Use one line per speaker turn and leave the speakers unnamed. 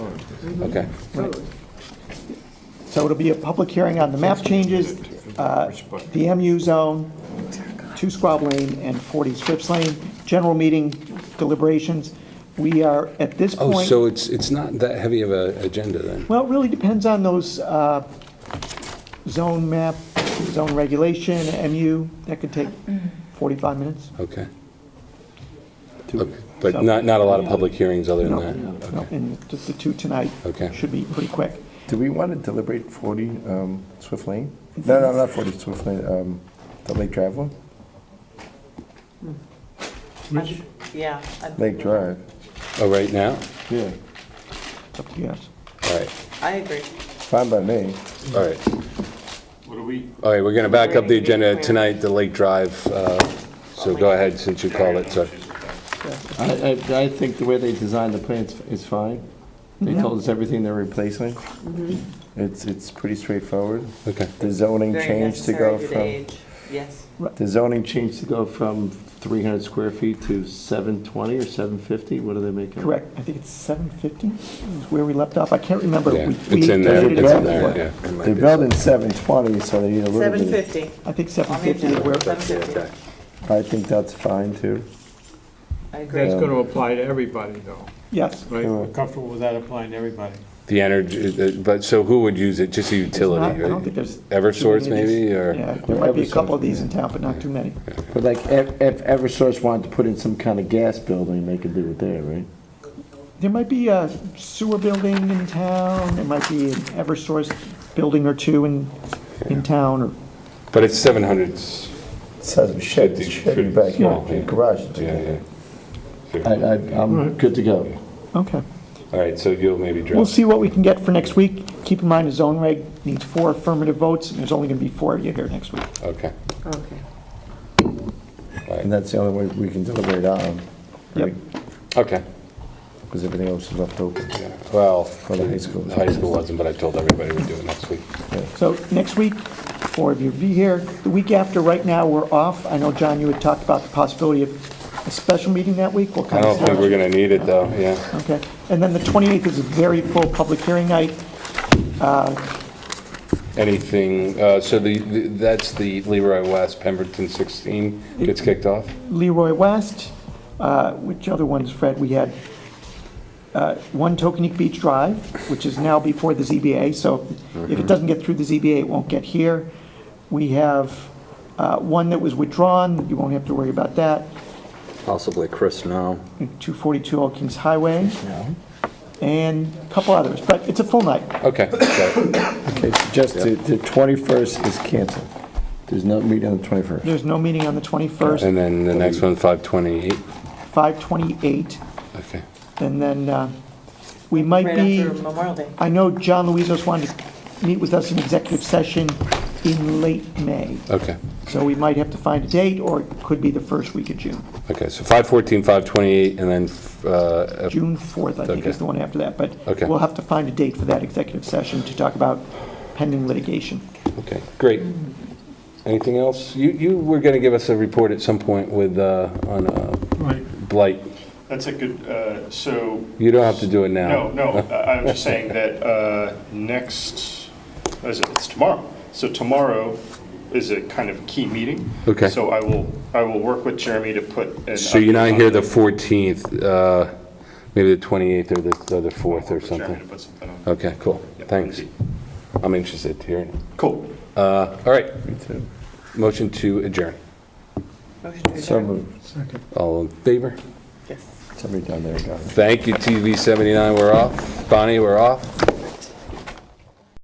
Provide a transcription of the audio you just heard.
Okay.
Totally.
So it'll be a public hearing on the map changes, uh, the MU zone, 2 Squab Lane and 40 Scripps Lane, general meeting deliberations. We are, at this point...
Oh, so it's, it's not that heavy of a agenda then?
Well, it really depends on those uh, zone map, zone regulation, MU, that could take 45 minutes.
Okay. Okay, But not, not a lot of public hearings other than
No,
that?
no, And just the two tonight
Okay.
should be pretty quick.
Do we want to deliberate 40 um, Swift Lane? No, no, not 40 Swift Lane, um, the Lake Drive one?
Yeah. I-
Lake Drive,
Oh, right now?
yeah,
It's up to you guys.
All right,
I agree.
fine by me.
all right.
What are we,
All right, we're going to back up the
Ready to
agenda
declare.
tonight, the Lake Drive. uh, So go ahead, since you called it, so.
I, I think the way they designed the plan is fine. They told us everything they're replacing. Mm-hmm. It's, it's pretty straightforward.
Okay,
The zoning
Very
change to
necessary
go
due
from,
age. Yes.
the zoning change to go from 300 square feet to 720 or 750, what do they make? it?
Correct, I think it's 750 is where we left off, I can't remember.
yeah,
We-
it's
we
in there,
edited it
it's in
out
there,
before.
yeah. It might
They're
be.
building 720, so they need a little
Seven
bit.
fifty.
I think
On the
750 is
agenda,
where,
seven fifty.
Okay.
of- I think that's fine, too.
I
that's
agree.
going to apply to everybody, though,
yes.
right?
Yeah.
We're comfortable with that applying to everybody.
The energy, the- but, so who would use it? Just a
Not-
utility,
I don't think
right?
there's. too
Eversource
many of these.
maybe, or?
Yeah, there might be a couple of these in town, but not too many.
But like, if, if Eversource wanted to put in some kind of gas building, they could do it there, right?
There might be a sewer building in town, there might be an Eversource building or two in, in town, or,
But it's 700, s-
Says shed,
Fifty- shed in the fifty, backyard, yeah. in the
garage.
yeah, yeah.
I, I, I'm good to go.
okay.
All right, so you'll maybe draft.
We'll see what we can get for next week. Keep in mind, the zone reg needs four affirmative votes, and there's only gonna be four of you here next week.
Okay.
Okay.
And that's the only way we can deliberate on,
Yep,
right?
Okay.
Because everything else is left open.
Yeah. Well,
For the high school.
the high school wasn't, but I told everybody we'd do it next week.
so next week, four of you will be here. The week after, right now, we're off. I know, John, you had talked about the possibility of a special meeting that week. We'll
I
kind
don't
of see.
think we're going to need it, though, yeah.
Okay, and then the 28th is a very full public hearing night.
Anything, uh, so the, the- that's the Leroy West Pemberton 16 gets kicked off?
Leroy West, uh, which other ones, Fred? We had uh, One Tokenique Beach Drive, which is now before the ZBA, so if it doesn't get through the ZBA, it won't get here. We have uh, one that was withdrawn, you won't have to worry about that,
Possibly Chris now.
242 Old Kings Highway, and a couple others, but it's a full night.
Okay, got it.
Okay, so just the, the 21st is canceled. There's no meeting on the 21st.
There's no meeting on the 21st,
And then the next one, 528,
5:28,
okay.
and then uh, we might
Right
be...
after Memorial Day.
I know John Luizos wanted to meet with us in executive session in late May,
Okay,
so we might have to find a date, or it could be the first week of June.
okay, so 514, 528, and then, uh,
June 4th, I think, is
Okay.
the one after that, but
Okay.
we'll have to find a date for that executive session to talk about pending litigation.
okay, great. Anything else? You, you were going to give us a report at some point with, uh, on uh,
Right.
blight.
That's a good, uh, so,
You don't have to do it now.
no, no, I I was just saying that uh, next, what is it? it's tomorrow. So tomorrow is a kind of key meeting.
Okay.
So I will, I will work with Jeremy to put. an
So you're not
update on
here
it.
the 14th, uh, maybe the 28th or the, or the 4th or
Work with Jeremy to
something?
put something on.
Okay, cool,
Yeah,
thanks.
indeed.
I'm interested to hear it.
Cool.
Uh, All right,
Me too.
motion to adjourn.
Motion to
So
adjourn.
moved.
All in favor?
Yes.
Somebody down there got it.
Thank you, TV 79, we're off. Bonnie, we're off.